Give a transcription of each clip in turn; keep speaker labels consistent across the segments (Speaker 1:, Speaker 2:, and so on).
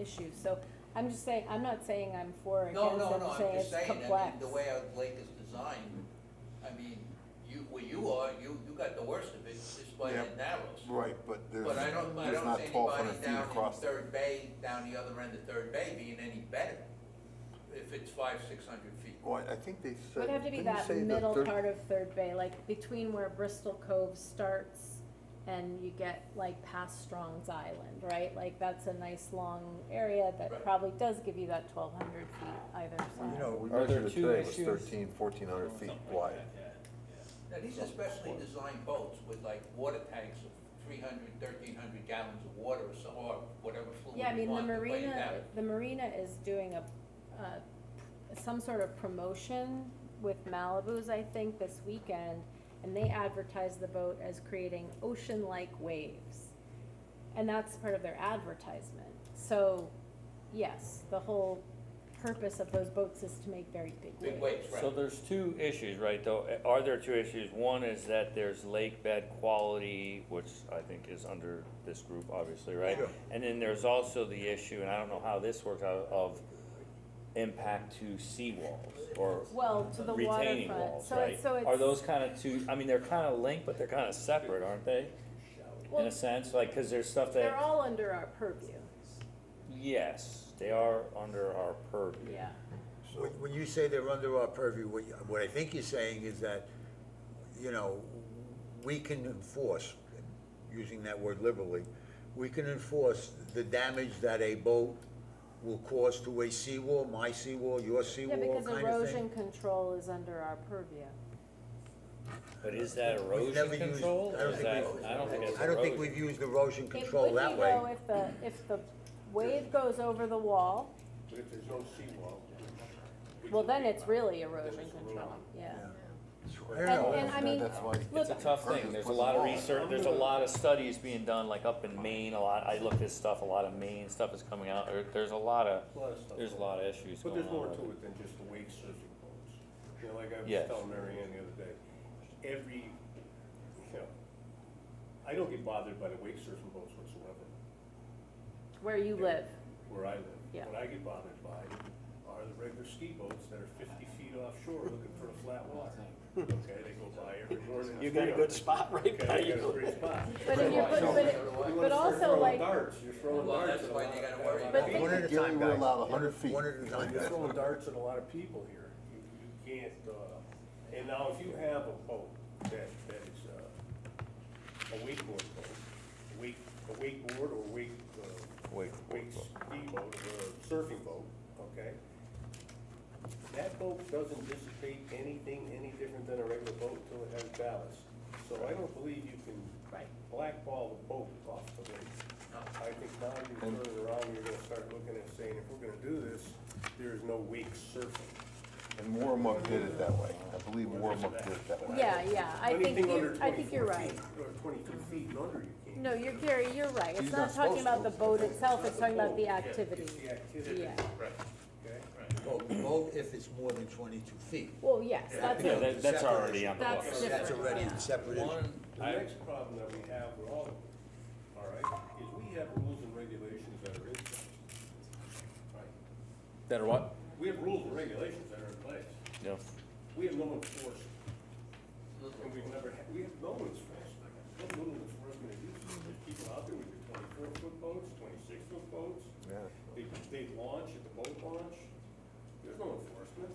Speaker 1: issue, so I'm just saying, I'm not saying I'm for or
Speaker 2: No,
Speaker 1: against
Speaker 2: no,
Speaker 1: it,
Speaker 2: no,
Speaker 1: I'm
Speaker 2: I'm
Speaker 1: saying
Speaker 2: just
Speaker 1: it's
Speaker 2: saying,
Speaker 1: complex.
Speaker 2: I mean, the way our lake is designed, I mean, you, where you are, you, you got the worst of it, just by
Speaker 3: Yeah.
Speaker 2: it narrows.
Speaker 3: Right, but there's,
Speaker 2: But I don't, I
Speaker 3: there's
Speaker 2: don't
Speaker 3: not
Speaker 2: see
Speaker 3: twelve hundred
Speaker 2: anybody
Speaker 3: feet
Speaker 2: down in
Speaker 3: across.
Speaker 2: Third Bay, down the other end of Third Bay being any better, if it's five, six hundred feet.
Speaker 3: Well, I think they
Speaker 1: It
Speaker 3: said.
Speaker 1: Would have to be
Speaker 3: didn't
Speaker 1: that
Speaker 3: say the
Speaker 1: middle
Speaker 3: third-
Speaker 1: part of Third Bay, like between where Bristol Cove starts and you get like past Strong's Island, right? Like that's a nice long area
Speaker 2: Right.
Speaker 1: that probably does give you that twelve hundred feet either
Speaker 4: Well, you
Speaker 1: side.
Speaker 4: know, we
Speaker 5: Are there
Speaker 4: measured it
Speaker 5: two
Speaker 4: today, it was
Speaker 5: issues?
Speaker 4: thirteen, fourteen hundred feet wide.
Speaker 2: Now, these are specially designed boats with like water tanks of 300, 1300 gallons of water or so, or whatever fluid
Speaker 1: Yeah, I
Speaker 2: you
Speaker 1: mean, the
Speaker 2: want to weigh it
Speaker 1: marina,
Speaker 2: down.
Speaker 1: the marina is doing a, uh, some sort of promotion with Malibu's, I think, this weekend. And they advertise the boat as creating ocean-like waves. And that's part of their advertisement. So, yes, the whole purpose of those boats is to make very big waves.
Speaker 2: Big waves, right?
Speaker 5: So there's two issues, right, though, are there two issues? One is that there's lake bed quality, which I think is under this group, obviously, right?
Speaker 3: Sure.
Speaker 5: And then there's also the issue, and I don't know how this works out, of impact to seawalls, or
Speaker 1: Well, to the
Speaker 5: retaining
Speaker 1: waterfront,
Speaker 5: walls,
Speaker 1: so
Speaker 5: right?
Speaker 1: it's, so it's.
Speaker 5: Are those kinda two, I mean, they're kinda linked, but they're kinda separate, aren't they? In
Speaker 1: Well,
Speaker 5: a sense, like, cause there's stuff
Speaker 1: they're
Speaker 5: that,
Speaker 1: all under our purview,
Speaker 5: yes, they are under our purview.
Speaker 1: yeah.
Speaker 6: When, when you say they're under our purview, what, you- what I think you're saying is that, you know, we can enforce, using that word liberally, we can enforce the damage that a boat will cause to a seawall, my seawall, your
Speaker 1: Yeah,
Speaker 6: seawall,
Speaker 1: because
Speaker 6: kind of
Speaker 1: erosion
Speaker 6: thing.
Speaker 1: control is under our purview.
Speaker 5: But is that
Speaker 6: We've never
Speaker 5: erosion
Speaker 6: used-
Speaker 5: control?
Speaker 6: I don't
Speaker 5: Is
Speaker 6: think
Speaker 5: that-
Speaker 6: we've-
Speaker 5: I don't think it's
Speaker 6: I don't think
Speaker 5: erosion.
Speaker 6: we've used erosion control that way.
Speaker 1: It would be though if the, if the wave goes over the wall,
Speaker 7: But if there's no seawall. we
Speaker 1: well,
Speaker 7: can
Speaker 1: then
Speaker 7: leave
Speaker 1: it's
Speaker 7: that.
Speaker 1: really
Speaker 7: Then
Speaker 1: erosion
Speaker 7: it's
Speaker 1: control,
Speaker 7: erosion.
Speaker 1: yeah.
Speaker 6: I
Speaker 1: And,
Speaker 6: don't know.
Speaker 1: and I mean,
Speaker 3: That's why-
Speaker 5: It's a
Speaker 1: look,
Speaker 5: tough thing, there's a lot of research, there's a lot of studies being done, like up in Maine, a lot, I looked at stuff, a lot of Maine stuff is coming out, there, there's a lot of,
Speaker 7: Lot of stuff.
Speaker 5: there's a lot of issues
Speaker 7: But
Speaker 5: going on.
Speaker 7: there's more
Speaker 5: with
Speaker 7: to
Speaker 5: it.
Speaker 7: it than just the wake surfing boats. You know, like I was
Speaker 5: Yes.
Speaker 7: telling Mary Ann the other day, every, you know, I don't get bothered by the wake surfing boats whatsoever,
Speaker 1: where you live,
Speaker 7: where I live.
Speaker 1: Yeah.
Speaker 7: What I get bothered by are the regular ski boats that are fifty feet offshore looking for a flat water. Okay, they go by every morning.
Speaker 8: You got a good spot right by
Speaker 7: Okay, you got a
Speaker 8: you.
Speaker 7: great spot.
Speaker 1: but if you're, but, but, it-
Speaker 2: You
Speaker 1: but also like,
Speaker 7: Darts, you're throwing
Speaker 2: Well,
Speaker 7: darts.
Speaker 2: that's
Speaker 7: at a
Speaker 2: why
Speaker 7: lot
Speaker 2: they
Speaker 7: of
Speaker 2: gotta
Speaker 7: guys.
Speaker 2: worry
Speaker 1: But
Speaker 2: about
Speaker 1: think-
Speaker 6: One at a time,
Speaker 3: Gary, we're
Speaker 6: guys.
Speaker 3: allowed
Speaker 6: One-
Speaker 3: 100 feet.
Speaker 6: One at a time,
Speaker 7: You're
Speaker 6: guys.
Speaker 7: throwing darts at a lot of people here. You, you can't, uh, and now if you have a boat that, that is, uh, a wakeboard boat, a wake, a wakeboard or wake, uh,
Speaker 5: Wake-
Speaker 7: wake speedboat, or a surfing boat, okay? That boat doesn't dissipate anything any different than a regular boat until it has ballast. So I don't believe you can blackball the boat off the lake. I think now you turn it around, you're gonna start looking at saying, if we're gonna do this, there is no wake surfing.
Speaker 3: And Warmuck did it that way. I believe Warmuck did it that way.
Speaker 1: yeah, yeah, I think
Speaker 7: Anything
Speaker 1: you,
Speaker 7: under
Speaker 1: I think you're
Speaker 7: 24
Speaker 1: right.
Speaker 7: feet Or twenty-two feet and under, you can't.
Speaker 1: No, you're, Gary, you're right, it's
Speaker 3: He's
Speaker 1: not
Speaker 3: not
Speaker 1: talking
Speaker 3: supposed
Speaker 1: about the
Speaker 3: to.
Speaker 1: boat itself, it's talking about the
Speaker 7: Yeah,
Speaker 1: activity,
Speaker 7: It's the activity,
Speaker 1: yeah.
Speaker 2: Right,
Speaker 7: okay?
Speaker 6: Well, the boat if it's more than twenty-two feet.
Speaker 1: Well, yes, that's,
Speaker 5: Yeah, that, that's already on the
Speaker 1: That's
Speaker 5: books.
Speaker 1: different.
Speaker 6: That's already
Speaker 1: Yeah.
Speaker 6: separate. issue.
Speaker 2: One,
Speaker 7: The next problem that we have with all of them, all right, is we have rules and regulations that are in place. Right?
Speaker 5: That are what?
Speaker 7: We have rules and regulations that are in place.
Speaker 5: No,
Speaker 7: We have no enforcement. And we've never had, we have no enforcement. What little enforcement it is, there's people out there with their twenty-four foot boats, twenty-six foot boats.
Speaker 3: Yeah.
Speaker 7: They, they launch at the boat launch. There's no enforcement.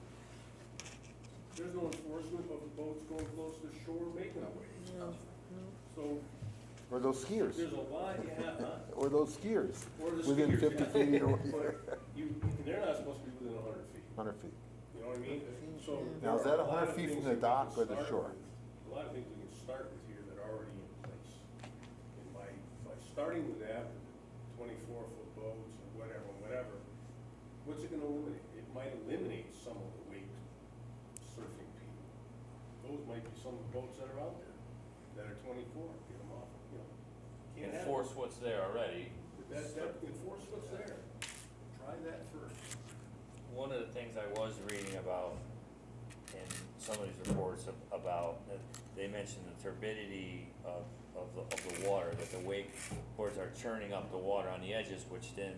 Speaker 7: There's no enforcement of the boats going close to shore making a wave. So
Speaker 3: Or those skiers,
Speaker 7: there's a lot you have, huh?
Speaker 3: or those skiers,
Speaker 7: Or the
Speaker 3: within
Speaker 7: skiers,
Speaker 3: fifty
Speaker 7: yeah.
Speaker 3: feet or
Speaker 7: But you, they're not supposed to be within hundred feet.
Speaker 3: hundred feet.
Speaker 7: You know what I mean? So.
Speaker 3: Now, is
Speaker 7: there
Speaker 3: that
Speaker 7: are a
Speaker 3: 100
Speaker 7: lot of
Speaker 3: feet
Speaker 7: things
Speaker 3: from the
Speaker 7: that we
Speaker 3: dock
Speaker 7: can
Speaker 3: or the
Speaker 7: start
Speaker 3: shore?
Speaker 7: with. A lot of things we can start with here that are already in place. And by, by starting with that, twenty-four foot boats or whatever, whatever, what's it gonna eliminate? It might eliminate some of the wake surfing people. Those might be some of the boats that are out there, that are twenty-four, get them off, you know. Can't have it.
Speaker 5: enforce what's there already.
Speaker 7: That, that, enforce what's there. Try that first.
Speaker 5: One of the things I was reading about in some of these reports ab- about, uh, they mentioned the turbidity of, of the, of the water, that the wakeboards are churning up the water on the edges, which then